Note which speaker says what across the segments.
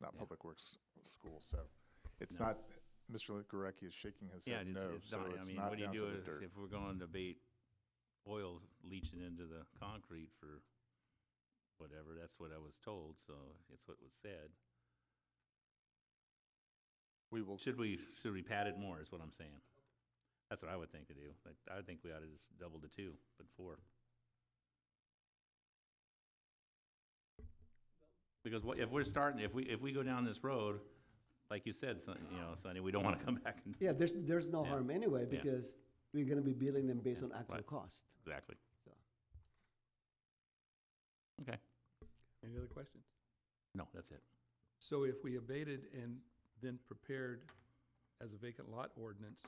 Speaker 1: not Public Works School, so it's not, Mr. Gurecki is shaking his
Speaker 2: Yeah,
Speaker 1: head
Speaker 2: it's,
Speaker 1: no,
Speaker 2: it's not,
Speaker 1: so
Speaker 2: I
Speaker 1: it's
Speaker 2: mean,
Speaker 1: not
Speaker 2: what do you
Speaker 1: down
Speaker 2: do
Speaker 1: to the
Speaker 2: is
Speaker 1: dirt.
Speaker 2: if we're going to debate oil leaching into the concrete for whatever, that's what I was told, so it's what was said.
Speaker 1: We will,
Speaker 2: Should we, should we pad it more is what I'm saying. That's what I would think to do. Like, I think we ought to just double to two, but four. Because what, if we're starting, if we, if we go down this road, like you said, Son- you know, Sonny, we don't want to come back and,
Speaker 3: Yeah, there's, there's no
Speaker 2: Yeah.
Speaker 3: harm anyway,
Speaker 2: Yeah.
Speaker 3: because we're gonna be billing them based on actual
Speaker 2: Right.
Speaker 3: cost.
Speaker 2: exactly.
Speaker 3: So.
Speaker 2: Okay,
Speaker 4: Any other questions?
Speaker 2: no, that's it.
Speaker 4: So if we abated and then prepared as a vacant lot ordinance,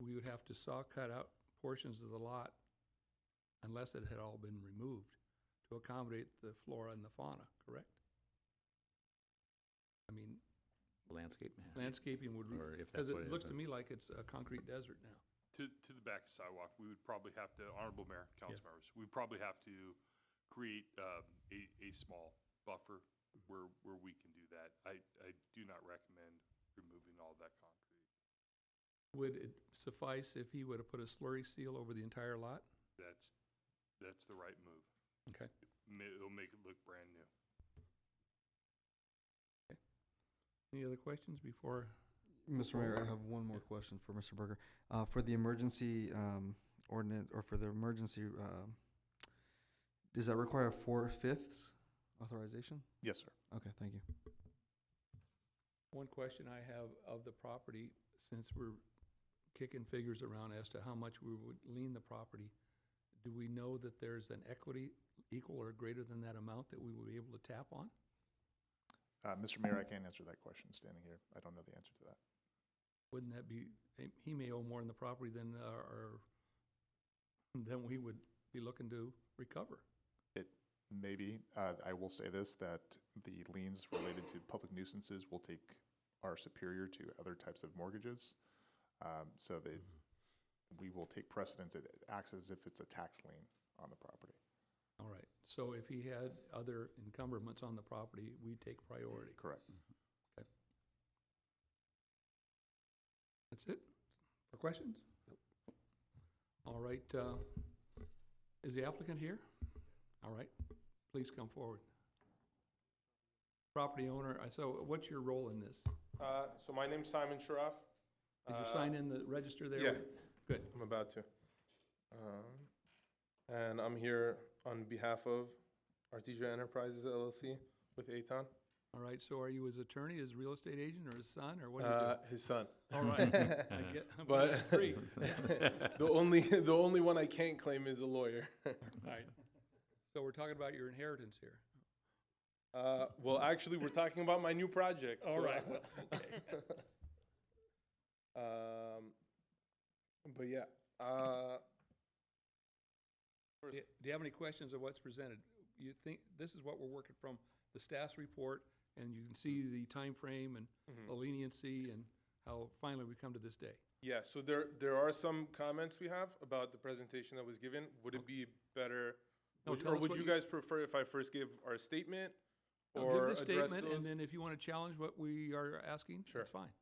Speaker 4: we would have to saw cut out portions of the lot unless it had all been removed to accommodate the flora and the fauna, correct? I mean,
Speaker 2: Landscape man.
Speaker 4: landscaping would,
Speaker 2: Or if
Speaker 4: because
Speaker 2: that's what it
Speaker 4: it
Speaker 2: is,
Speaker 4: looks to
Speaker 2: then-
Speaker 4: me like it's a concrete desert now.
Speaker 5: To, to the back of sidewalk, we would probably have to, honorable mayor, council
Speaker 4: Yes.
Speaker 5: members, we'd probably have to create, um, a, a small buffer where, where we can do that. I, I do not recommend removing all that concrete.
Speaker 4: Would it suffice if he would have put a slurry seal over the entire lot?
Speaker 5: That's, that's the right move.
Speaker 4: Okay.
Speaker 5: Ma- It'll make it look brand new.
Speaker 4: Any other questions before?
Speaker 6: Mr. Mayor, I have one more question for Mr. Berger. Uh, for the emergency, um, ordinance, or for the emergency, uh, does that require four-fifths authorization?
Speaker 1: yes, sir.
Speaker 6: Okay, thank you.
Speaker 4: One question I have of the property, since we're kicking figures around as to how much we would lean the property, do we know that there's an equity equal or greater than that amount that we would be able to tap on?
Speaker 1: Uh, Mr. Mayor, I can't answer that question standing here. I don't know the answer to that.
Speaker 4: Wouldn't that be, he- he may owe more in the property than, uh, or, than we would be looking to recover.
Speaker 1: Maybe, uh, I will say this, that the liens related to public nuisances will take, are superior to other types of mortgages. Um, so they, we will take precedence, it acts as if it's a tax lien on the property.
Speaker 4: All right, so if he had other encumberments on the property, we take priority.
Speaker 1: Correct.
Speaker 4: That's it? For questions? All right, uh, is the applicant here? All right, please come forward. Property owner, I so what's your role in this?
Speaker 7: Uh, So my name's Simon Sharaf.
Speaker 4: Did you
Speaker 7: Uh,
Speaker 4: sign in the register there?
Speaker 7: yeah.
Speaker 4: Good.
Speaker 7: I'm about to. Um, And I'm here on behalf of Artesia Enterprises LLC with Eitan,
Speaker 4: All right, so are you his attorney, his real estate agent, or his son, or what do
Speaker 7: uh,
Speaker 4: you
Speaker 7: his son.
Speaker 4: do? All right. I get- I'm
Speaker 7: But-
Speaker 4: getting three.
Speaker 7: The only, the only one I can't claim is a lawyer.
Speaker 4: All right. So we're talking about your inheritance here.
Speaker 7: Uh, Well, actually, we're talking about my new project.
Speaker 4: All
Speaker 7: so-
Speaker 4: right, well, okay.
Speaker 7: Um, But yeah. uh,
Speaker 4: Do do you have any questions of what's presented? You think, this is what we're working from, the staff's report, and you can see the time frame and
Speaker 7: Hmm. mm-hmm.
Speaker 4: the leniency and how finally we come to this day.
Speaker 7: Yeah, so there, there are some comments we have about the presentation that was given. Would it be better,
Speaker 4: No,
Speaker 7: would-
Speaker 4: tell
Speaker 7: or
Speaker 4: us
Speaker 7: would
Speaker 4: what
Speaker 7: you
Speaker 4: you-
Speaker 7: guys prefer if I first give our statement?
Speaker 4: Now,
Speaker 7: Or
Speaker 4: Give the
Speaker 7: address
Speaker 4: statement,
Speaker 7: those?
Speaker 4: and then if you want to challenge what we are asking,
Speaker 7: Sure.
Speaker 4: that's fine.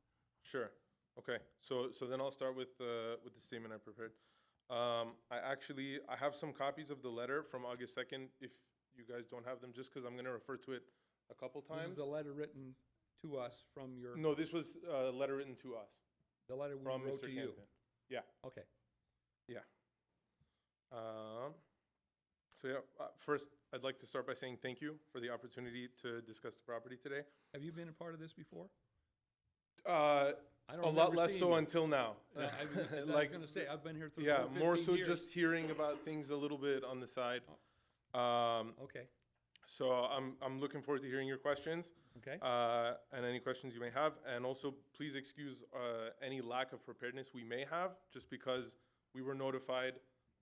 Speaker 7: Sure. Okay. So so then I'll start with uh, with the statement I prepared. Um, I actually I have some copies of the letter from August second. If you guys don't have them, just because I'm going to refer to it a couple
Speaker 4: This is
Speaker 7: times.
Speaker 4: the letter written to us from your,
Speaker 7: No, this was uh, a letter written to us
Speaker 4: the letter we
Speaker 7: from
Speaker 4: wrote to
Speaker 7: Mr.
Speaker 4: you.
Speaker 7: Campion. Yeah.
Speaker 4: Okay.
Speaker 7: Um, so yeah. Uh, first, I'd like to start by saying thank you for the opportunity to discuss the property today.
Speaker 4: Have you been a part of this before?
Speaker 7: Uh,
Speaker 4: I
Speaker 7: a
Speaker 4: don't
Speaker 7: lot
Speaker 4: remember
Speaker 7: less
Speaker 4: seeing
Speaker 7: so
Speaker 4: you.
Speaker 7: until now.
Speaker 4: Uh, I was I was
Speaker 7: Like,
Speaker 4: gonna say, I've been here through
Speaker 7: yeah,
Speaker 4: over
Speaker 7: more
Speaker 4: 15
Speaker 7: so
Speaker 4: years.
Speaker 7: just hearing about things a little bit on the side.
Speaker 4: Oh.
Speaker 7: Um,
Speaker 4: Okay,
Speaker 7: so I'm I'm looking forward to hearing your questions
Speaker 4: okay.
Speaker 7: uh, and any questions you may have, and also please excuse uh, any lack of preparedness we may have, just because we were notified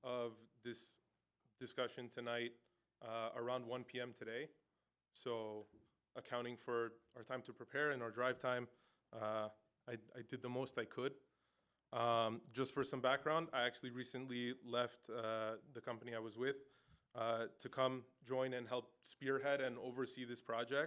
Speaker 7: of this discussion tonight uh, around 1 p.m. today. So, accounting for our time to prepare and our drive time, uh, I, I did the most I could. Um, just for some background, I actually recently left uh, the company I was with uh, to come join and help spearhead and oversee this project.